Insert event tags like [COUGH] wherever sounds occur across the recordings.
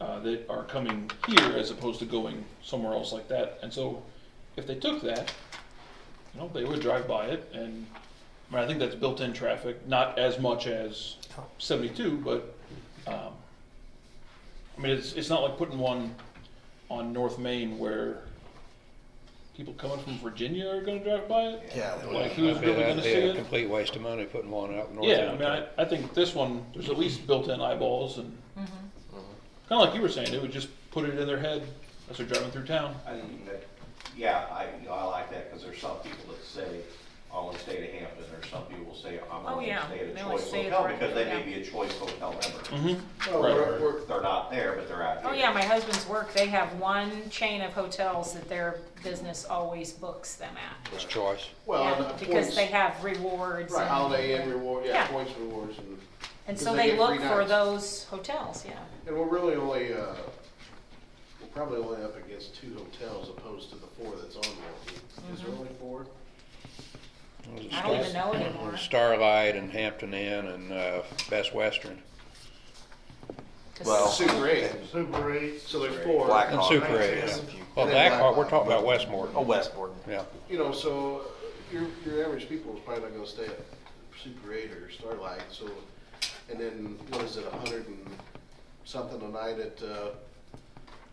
uh, that are coming here as opposed to going somewhere else like that. And so if they took that, you know, they would drive by it and, I mean, I think that's built-in traffic, not as much as seventy-two, but, um, I mean, it's, it's not like putting one on North Main where people coming from Virginia are gonna drive by it. Yeah, that Like, would- who's really gonna see That'd be a it? complete waste of money putting one out north. Yeah, I of mean, I, town. I think this one, there's at least built-in eyeballs and, kinda like you were saying, it would just put it in their head as they're driving through town. I mean, that, yeah, I, I like that, because there's some people that say, I wanna stay at Hampton, or some people will say, I'm Oh, only yeah. gonna stay at They a only choice stay at hotel, the right- because they may yeah. be a choice hotel member. Mm-hmm, No, Right. Oh, we're- we're- They're not there, but they're out here. Oh, yeah, my husband's work, they have one chain of hotels that their business always books them at. It's choice. Well, Yeah, and the Because points, they have rewards. right, and- holiday and reward, yeah, Yeah. points rewards and, And 'cause so they they get look free for nights. those hotels, yeah. and we're really only, uh, we're probably only up against two hotels opposed to the four that's on Milwaukee. Mm-hmm. Is there only four? I don't even know anymore, Starlight and Hampton Inn and uh, Best Western 'cause Well, Super eight, Super eight. so there's four. Black and Hawk. Super Eight. Yes. yeah. Well, Blackhawk, we're talking about Westmore. Oh, Westmore. Yeah, You know, so uh, your, your average people is probably not gonna stay at Super Eight or Starlight, so, and then, what is it, a hundred and something a night at, uh,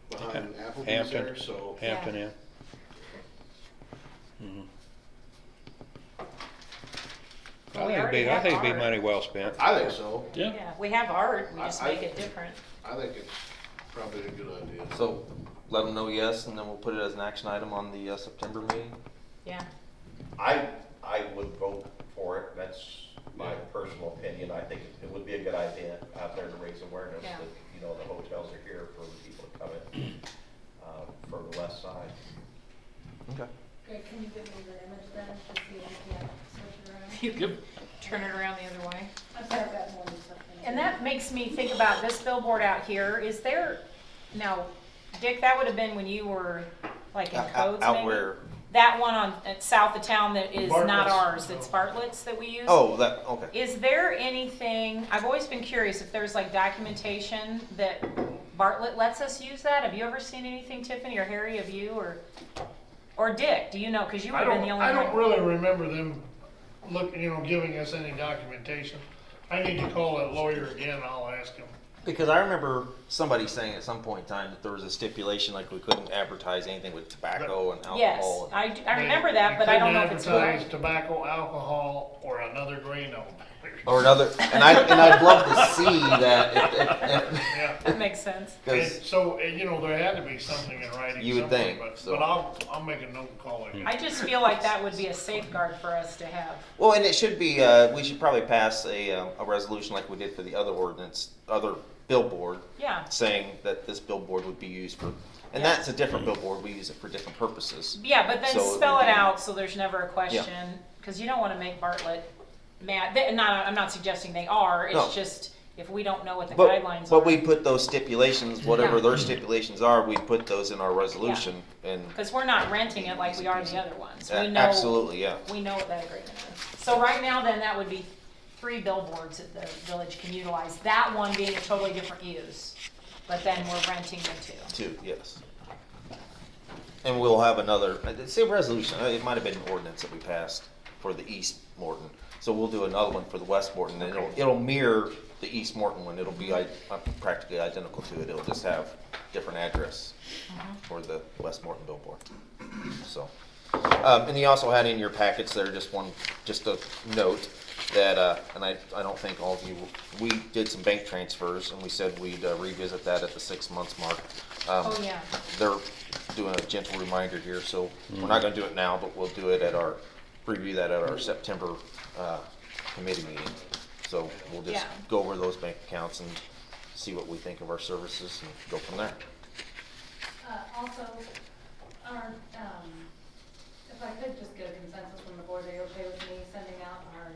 behind Applebee's Hampton. there, so. Hampton Inn. Mhm. Well, I we think it'd already be, I have think it'd be ours. money well spent. I think so. yeah. Yeah, we have art, we I- just I- make it different. I think it's probably a good idea. So let them know yes, and then we'll put it as an action item on the uh, September meeting. Yeah, [LAUGHS] I, I would vote for it, that's my personal opinion, I think it would be a good idea out there to raise awareness Yeah. that, you know, the hotels are here for people to come in, uh, from the west side. Okay. Greg, can you give me the image then, just so you can switch it around? you could turn it around the other way. I'm sorry, I've got more than something. And that makes me think about this billboard out here, is there, now, Dick, that would have been when you were like in Out- out- codes out maybe? where? That one on, at south of town that is not Bartlett's. ours, that's Bartlett's that we use? Oh, that okay. Is there anything, I've always been curious if there's like documentation that Bartlett lets us use that? Have you ever seen anything, Tiffany or Harry, of you or, or Dick? Do you know? Cause you would I have been don't, the I only don't one. really remember them look, you know, giving us any documentation. I need to call that lawyer again, I'll ask him. Because I remember somebody saying at some point in time that there was a stipulation like we couldn't advertise anything with tobacco and Yes, alcohol. I, do- I They- remember they that, but I don't know couldn't if it's advertise right. Tobacco, alcohol, or another grain of. or another, and I and I'd love to see that Yeah. That makes sense. And because so, and, you know, there had to be something in writing You would somewhere, think, but, so. but I'll, I'll make a note and call him. I just feel like that would be a safeguard for us to have. well, and it should be uh, we should probably pass a um, a resolution like we did for the other ordinance, other billboard Yeah. saying that this billboard would be used for, and that's a different billboard. We use it for different purposes. Yeah, but then So it would spell it be- out so there's never a question, because you don't want to make Bartlett mad. They- Not, I'm not suggesting they are, No. it's just if we don't know what the But, guidelines but we are. put those stipulations, whatever Yeah. their stipulations are, we put those in our resolution and. Because we're not renting it like we are the other ones. We A- know, Absolutely, yeah. we know what that agreement is. So right now, then, that would be three billboards that the village can utilize, that one being a totally different use, but then we're renting the two. Two, yes. And we'll have another, it's a resolution, uh, it might have been an ordinance that we passed for the East Morton. So we'll do another one for the West Morton, and it'll, it'll mirror the East Morton one, it'll be i- uh, practically identical to it, it'll just have different address for the West Morton billboard, so. Um, and you also had in your packets there, just one, just a note that, uh, and I, I don't think all of you, we did some bank transfers, and we said we'd uh, revisit that at the six months mark. Um, Oh, yeah. they're doing a gentle reminder here, so we're not gonna do it now, but we'll do it at our, review that at our September, uh, committee meeting. So we'll just Yeah. go over those bank accounts and see what we think of our services and go from there. Uh, also, our, um, if I could just get a consensus from the board, are you okay with me sending out our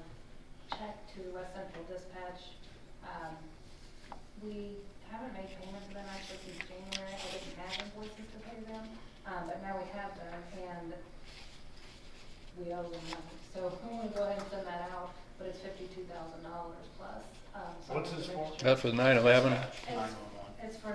check to West Central Dispatch? Um, we haven't made payments to them actually since January, I didn't have invoices to pay them, um, but now we have them, and we owe them money, so [LAUGHS] I'm gonna go ahead and send that out, but it's fifty-two thousand dollars plus, um. so I What's wanted this to make for? sure- That's was nine eleven. It's, it's for